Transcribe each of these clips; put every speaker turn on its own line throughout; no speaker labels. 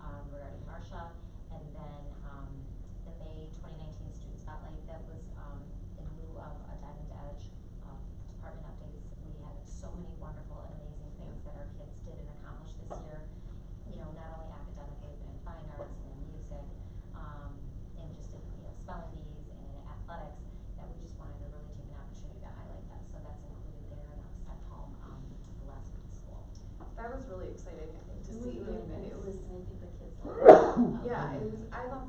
um, um, um, um,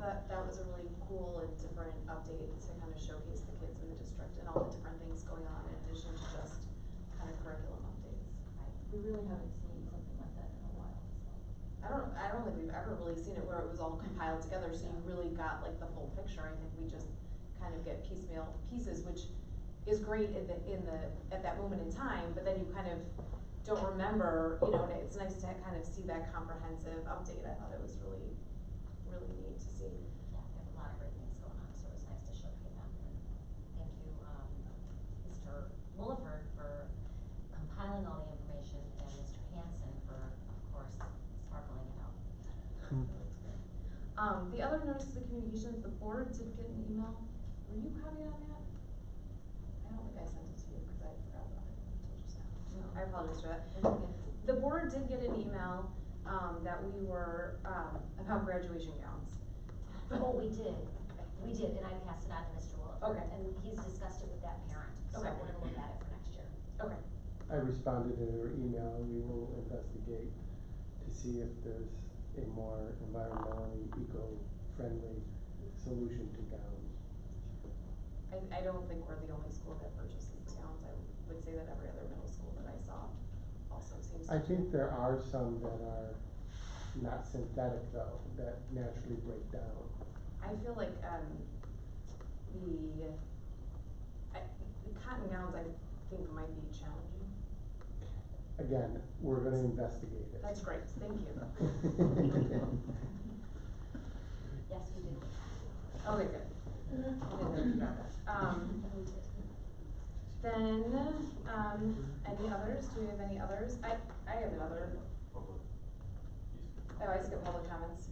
thought that that was a really cool and different update to kind of showcase the kids in the district and all the different things going on in addition to just kind of curriculum updates.
We really haven't seen something like that in a while, so.
I don't, I don't think we've ever really seen it where it was all compiled together, so you really got like the full picture, I think we just kind of get piecemeal pieces, which is great in the, in the, at that moment in time, but then you kind of don't remember, you know, and it's nice to kind of see that comprehensive update, I thought it was really, really neat to see.
Yeah, we have a lot of great things going on, so it was nice to showcase them. And Thank you, um, Mr. Williford for compiling all the information and Mr. Hanson for, of course, sparkling it out.
Hmm.
Um, the other notice of communications, the board did get an email, were you copied on that? I don't think I sent it to you, cause I forgot about it until just now, so I apologize for that. The board did get an email, um, that we were, um, about graduation gowns.
Oh, we did, we did, and I passed it on to Mr. Williford.
Okay.
And he's discussed it with that parent, so
Okay.
we're gonna look at it for next year.
Okay,
I responded to her email, and we will investigate to see if there's a more environmentally eco-friendly solution to gowns.
I, I don't think we're the only school that purchases gowns, I would say that every other middle school that I saw also seems to.
I think there are some that are not synthetic though, that naturally break down.
I feel like, um, the, I, the cotton gowns, I think might be challenging.
Again, we're gonna investigate it.
That's great, thank you.
Yes, we did.
Okay, good. I didn't think about that. Um,
We did.
Then, um, any others? Do we have any others? I, I have another. Oh, I skipped public comments.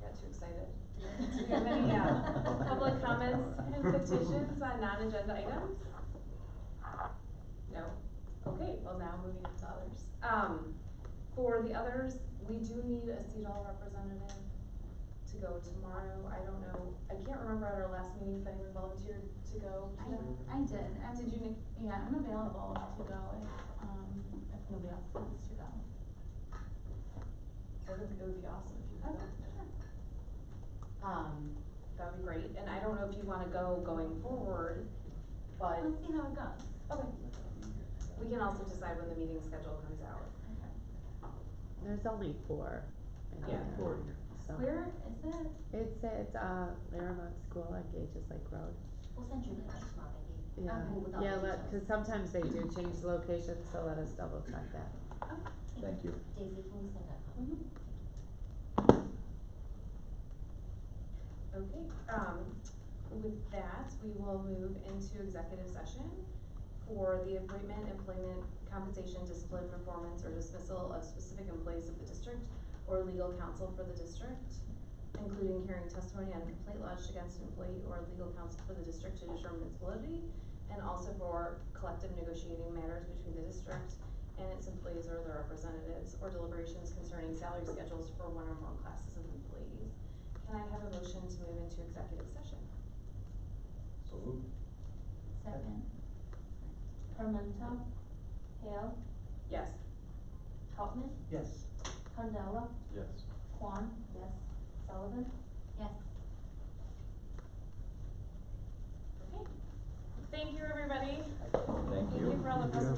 Got too excited. Do we have any, uh, public comments and petitions on non-agenda items? No? Okay, well now moving on to others. Um, for the others, we do need a CEDOL representative to go tomorrow. I don't know, I can't remember at our last meeting if anyone volunteered to go.
I, I did, I
Did you, Nick?
yeah, I'm available to go if, um, if nobody else wants to go.
I think it would be awesome if you could.
Okay, sure.
Um, that'd be great, and I don't know if you wanna go going forward, but
Let's see how it goes.
we can also decide when the meeting schedule comes out.
Okay.
There's only four. in
Yeah.
there,
Four.
So
Where is it?
it's it's uh Laramont School on Gages Lake Road.
We'll send you the next one, maybe.
Yeah,
Okay, with all
yeah,
the
let,
details.
cause sometimes they do change the location, so let us double check that.
Thank you.
Daisy, can we send that home?
Okay, um, with that, we will move into executive session for the appointment, employment, compensation, discipline, performance, or dismissal of specific employees of the district or legal counsel for the district, including hearing testimony on a complaint lodged against an employee or legal counsel for the district to determine its validity, and also for collective negotiating matters between the district and its employees or their representatives, or deliberations concerning salary schedules for one or more classes of employees. Can I have a motion to move into executive session?
So moved.
Second. Armento, Hale,
Yes.
Hauptman,
Yes.
Candela,
Yes.
Kwan. Yes. Sullivan.
Yes.
Okay. Thank you, everybody.
Thank you.
Thank you for all the
Yeah.